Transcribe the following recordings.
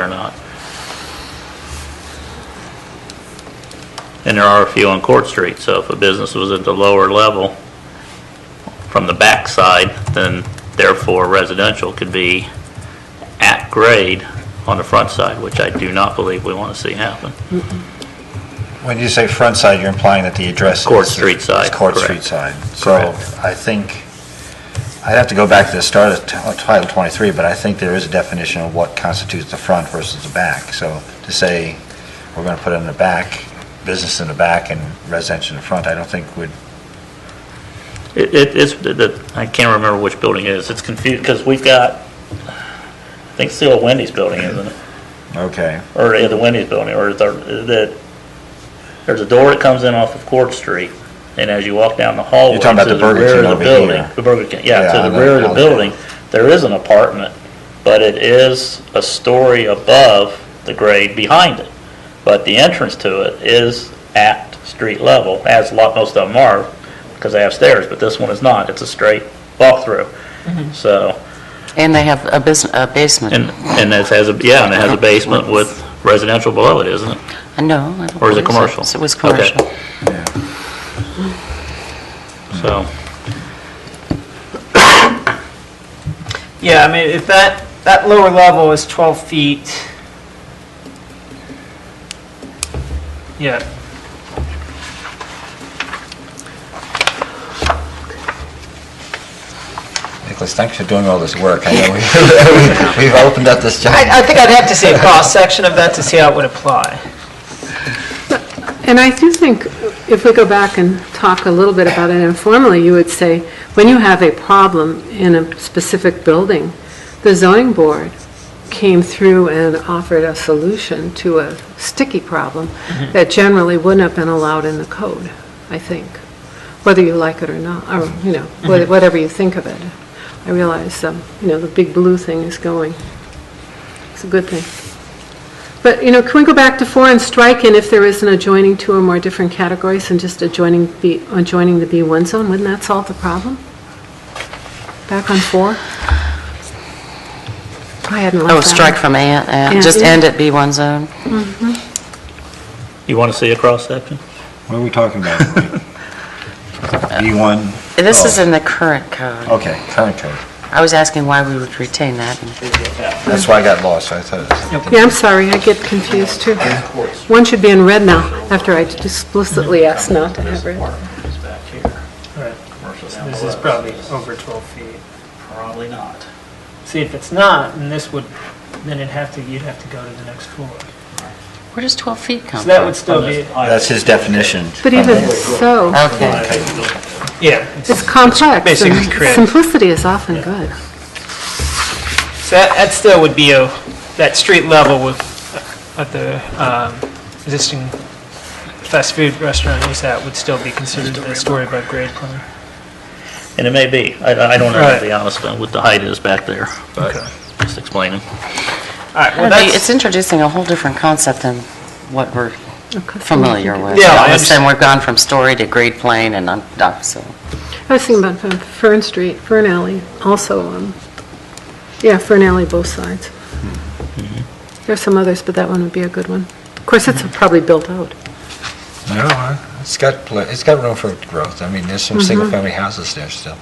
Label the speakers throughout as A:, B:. A: or not. And there are a few on Court Street, so if a business was at the lower level from the backside, then therefore residential could be at grade on the front side, which I do not believe we want to see happen.
B: When you say front side, you're implying that the address is...
A: Court Street side,
B: is Court
A: correct.
B: Street side.
A: Correct.
B: So I think, I'd have to go back to the start of t- Title 23, but I think there is a definition of what constitutes the front versus the back. So to say, we're going to put it in the back, business in the back and residential in the front, I don't think would,
A: It, it- it's, the- the- I can't remember which building it is. It's confused, because we've got, I think still a Wendy's building, isn't it?
B: okay.
A: or the Wendy's building, or the, that, there's a door that comes in off of Court Street, and as you walk down the hallway.
B: You're talking about
A: to
B: the Burger
A: rear
B: King
A: of the
B: over
A: building-
B: here.
A: The Burger King, yeah,
B: Yeah, I
A: to the
B: know,
A: rear of
B: I
A: the
B: know.
A: building, there is an apartment, but it is a story above the grade behind it. But the entrance to it is at street level, as a lot, most of them are, because they have stairs, but this one is not, it's a straight walkthrough. So,
C: And they have a business, a basement.
A: and, and it has, a yeah, and it has a basement with residential below it, isn't it?
C: No. I don't
A: Or is it
C: believe so.
A: commercial?
C: It was
A: Okay.
C: commercial.
A: So.
D: Yeah, I mean, if that, that lower level is 12 feet. Yeah.
B: Nicholas, thanks for doing all this work. I know we- we've opened up this giant...
D: I, I think I'd have to see a cross-section of that to see how it would apply.
E: And I do think, if we go back and talk a little bit about it informally, you would say, when you have a problem in a specific building, the zoning board came through and offered a solution to a sticky problem that generally wouldn't have been allowed in the code, I think, whether you like it or not, or, you know,
C: Mm-hmm.
E: wha- whatever you think of it. I realize, um, you know, the big blue thing is going. It's a good thing. But, you know, can we go back to four and strike in if there is an adjoining two or more different categories and just adjoining, B adjoining the B1 zone? Wouldn't that solve the problem? Back on four? I hadn't
C: Oh,
E: left that.
C: strike from and,
E: Yeah.
C: and just end at B1 zone.
A: You want to see a cross-section?
B: What are we talking about? B1?
C: This
B: Oh,
C: is in the current code.
B: Okay, current code.
C: I was asking why we would retain that. and-
B: That's why I got lost, I thought it was...
E: Yeah, I'm sorry, I get confused too. One should be in red now, after I explicitly asked not to have red.
D: Right. This is probably over 12 feet.
A: Probably not.
D: See, if it's not, then this would, then it'd have to, you'd have to go to the next floor.
C: Where does 12 feet come
D: So
C: from?
D: that would still be,
B: That's his definition.
E: But even so,
C: Okay.
D: yeah. it's-
E: it's complex, and
D: Basically correct.
E: simplicity is often good.
D: So that, that still would be a, that street level with, of the um, existing fast food restaurant use that would still be considered a story above grade plan.
A: And it may be. I, I don't know, to
D: Right.
A: be honest, uh, with the height is back there, but
D: Okay.
A: just explaining.
D: All right,
C: I
D: well,
C: don't think- It's
D: that's,
C: introducing a whole different concept than what we're familiar with.
D: Yeah,
C: All
D: I
C: of a
D: understand.
C: sudden, we've gone from story to grade plane and on, up, so.
E: I was thinking about um, Fern Street, Fern Alley, also, um, yeah, Fern Alley, both sides. Mm-hmm. There are some others, but that one would be a good one. Of course, it's probably built out.
B: No, I- it's got, pla- it's got room for growth. I mean, there's
E: Mm-hmm.
B: some single-family houses there still.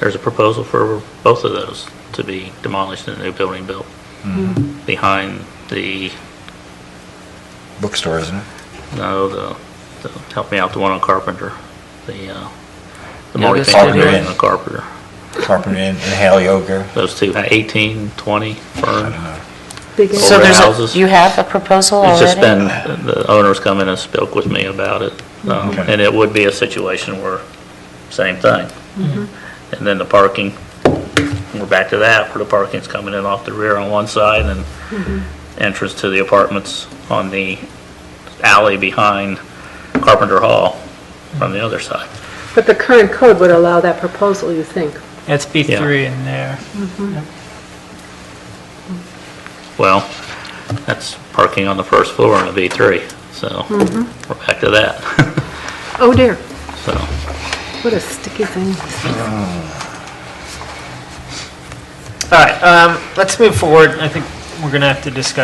A: There's a proposal for both of those to be demolished and a new building built
D: Hmm.
A: behind the,
B: Bookstore, isn't it?
A: no, the, the- help me out, the one on Carpenter, the, uh, the
C: Yeah, this
A: multifamily
B: one.
A: building on Carpenter.
B: Carpenter Inn, Inhale Yoga.
A: Those two, 18, 20, Fern.
E: Big
A: So
C: So
A: Older
E: area.
C: there's
A: houses.
C: a, you have a proposal
A: It's
C: already?
A: just been, the owners come in and spoke with me about it, um,
B: Okay.
A: and it would be a situation where, same thing. And then the parking, we're back to that, where the parking's coming in off the rear on one side, and entrance to the apartments on the alley behind Carpenter Hall from the other side.
E: But the current code would allow that proposal, you think?
D: that's B3 in there.
A: Well, that's parking on the first floor in a V3, so we're back to that,
E: Oh dear,
A: so.
E: what a sticky thing.
D: All right, um, let's move forward. I think we're going to have to discuss